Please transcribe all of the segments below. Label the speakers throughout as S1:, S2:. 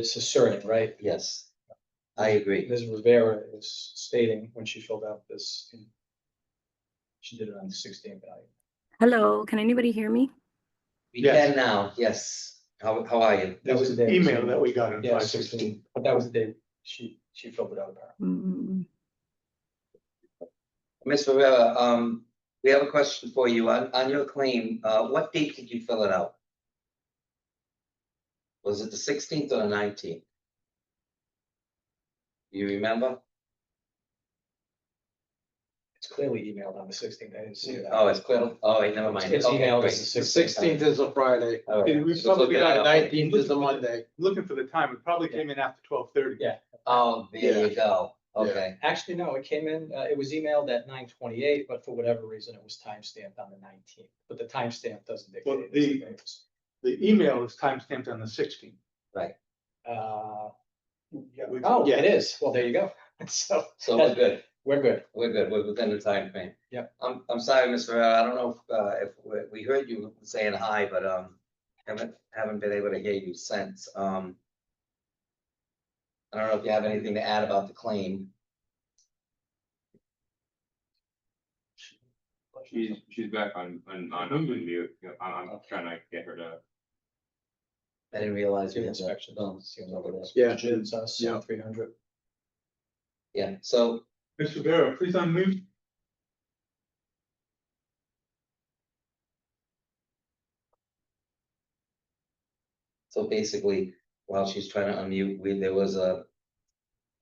S1: is asserting, right?
S2: Yes, I agree.
S1: Ms. Rivera is stating when she filled out this. She did it on the sixteenth value.
S3: Hello, can anybody hear me?
S2: We
S4: Yes.
S2: can now, yes. How, how are you?
S1: That was the day.
S4: Email that we got in
S1: Yeah,
S4: five
S1: sixteen,
S4: sixteen.
S1: but that was the day she, she filled it out apparently.
S3: Mm,
S2: Ms. Rivera, um, we have a question for you. On, on your claim, uh, what date did you fill it out? Was it the sixteenth or the nineteenth? You remember?
S1: It's clearly emailed on the sixteenth, I didn't see it.
S2: Oh, it's clear. Oh, wait, never mind.
S1: It's
S2: Okay,
S1: emailed
S2: great.
S1: as the
S5: The
S1: sixteenth.
S5: sixteenth is a Friday.
S2: All right.
S4: We
S5: We probably
S2: looking at
S5: got
S2: it.
S5: nineteenth is a Monday.
S4: Looking for the time, it probably came in after twelve thirty.
S1: Yeah.
S2: Oh, there you go. Okay,
S1: Actually, no, it came in, uh, it was emailed at nine twenty-eight, but for whatever reason, it was timestamped on the nineteenth, but the timestamp doesn't dictate.
S4: Well,
S1: it, it's
S4: the-
S1: dates.
S4: The email is timestamped on the sixteenth.
S1: Uh, yeah,
S4: We've-
S1: Oh,
S4: yeah.
S1: it is. Well, there you go. So
S2: so we're good.
S1: we're good.
S2: We're good, we're within the time frame.
S1: Yep.
S2: I'm, I'm sorry, Ms. Ferrera, I don't know if, uh, if, we- we heard you saying hi, but, um, haven't, haven't been able to hear you since, um. I don't know if you have anything to add about the claim.
S6: She's, she's back on, on, on, on mute, Yeah, I'm, I'm trying to get her to,
S2: I didn't realize. we
S1: Field
S2: had that.
S1: inspection.
S2: Oh,
S1: Seems like it is.
S5: Yeah.
S1: It's us,
S5: Yeah.
S1: three hundred.
S2: Yeah, so,
S4: Mr. Vera, please unmute.
S2: so basically, while she's trying to unmute, we, there was a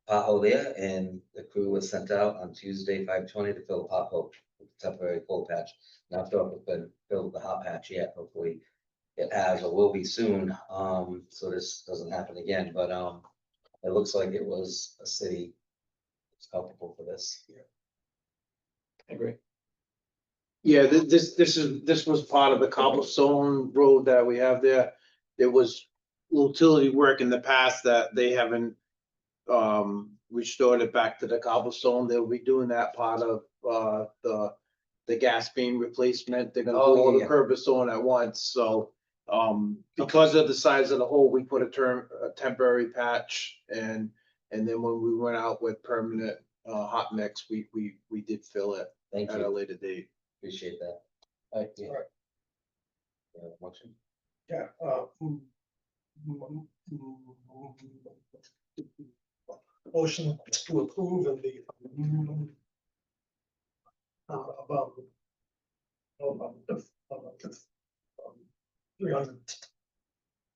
S2: pothole there, and the crew was sent out on Tuesday, five twenty, to fill a pothole, temporary cold patch. Not sure if it's been filled the hot patch yet, hopefully it has or will be soon, um, so this doesn't happen again, but, um, it looks like it was a city. It's culpable for this.
S1: I agree.
S5: Yeah, thi- this, this is, this was part of the cobblestone road that we have there. There was utility work in the past that they haven't um, restored it back to the cobblestone. They'll be doing that part of, uh, the, the gas beam replacement. They're gonna
S2: Oh,
S5: do
S2: yeah,
S5: all the
S2: yeah.
S5: curbs on at once, so, um, because of the size of the hole, we put a term, a temporary patch and, and then when we went out with permanent, uh, hot mix, we, we, we did fill it
S2: Thank
S5: at a
S2: you,
S5: later date.
S2: appreciate that.
S1: Alright.
S2: Yeah.
S7: Alright.
S2: Yeah, motion.
S7: Yeah, uh. mm, mm, mm, Motion to approve and the. mm, Uh, about. no, about the- about the, um, Three hundred.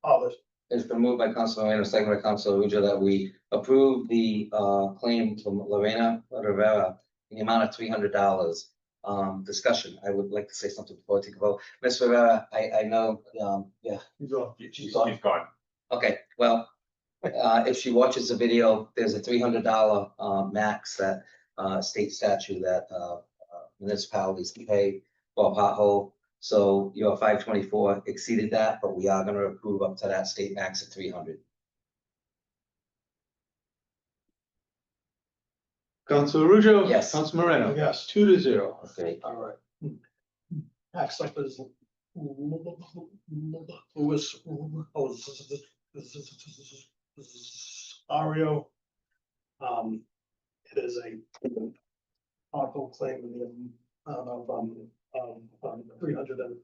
S7: Dollars,
S2: It's been moved by Council Moreno, second by Council Ruja, that we approve the uh claim from Lorena Rivera in the amount of three hundred dollars. Um, discussion, I would like to say something before I take a vote. Ms. Rivera, I I know, um, yeah,
S4: He's off.
S6: she's,
S2: She's
S6: she's
S2: on.
S6: gone.
S2: Okay, well, uh, if she watches the video, there's a three hundred dollar, uh, max that, uh, state statute that, uh, uh, municipalities can pay for a pothole. So your five twenty-four exceeded that, but we are gonna approve up to that state max of three hundred.
S4: Council Arujo.
S2: Yes.
S4: Council Moreno.
S7: Yes.
S4: Two to zero.
S2: Okay.
S7: all right. Next up is. Louis. oh, z- z- z- z- z- z- z- Ario. Um, it is a. Article claim in the, amount of um, um, um, three hundred and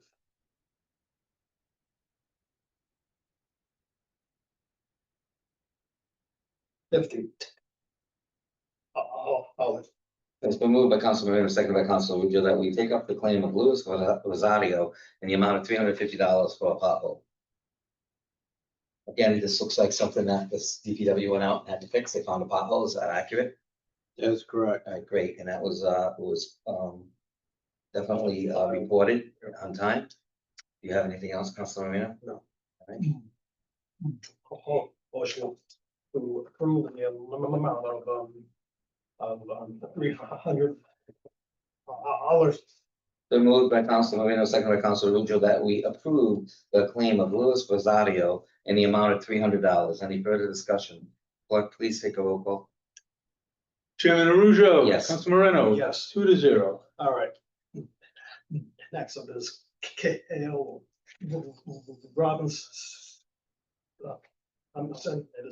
S7: fifty. Uh, oh, oh,
S2: It's been moved by Council Moreno, second by Council Ruja, that we take up the claim of Louis Rosario in the amount of three hundred fifty dollars for a pothole. Again, this looks like something that this DPW went out and had to fix. They found a pothole. Is that accurate?
S5: That's correct.
S2: All right, great, and that was, uh, was, um, definitely, uh, reported on time. Do you have anything else, Council Moreno?
S7: Oh, motion to approve the minimum amount of, um, of, um, three hundred dollars.
S2: Been moved by Council Moreno, second by Council Ruggio, that we approve the claim of Louis Rosario in the amount of three hundred dollars. Any further discussion? Clerk, please take a roll call.
S4: Chairman Arujo.
S2: Yes.
S4: Council Moreno.
S7: Yes.
S4: Two to zero.
S7: All right. Next up is Kale Robbins. uh, I'm sending it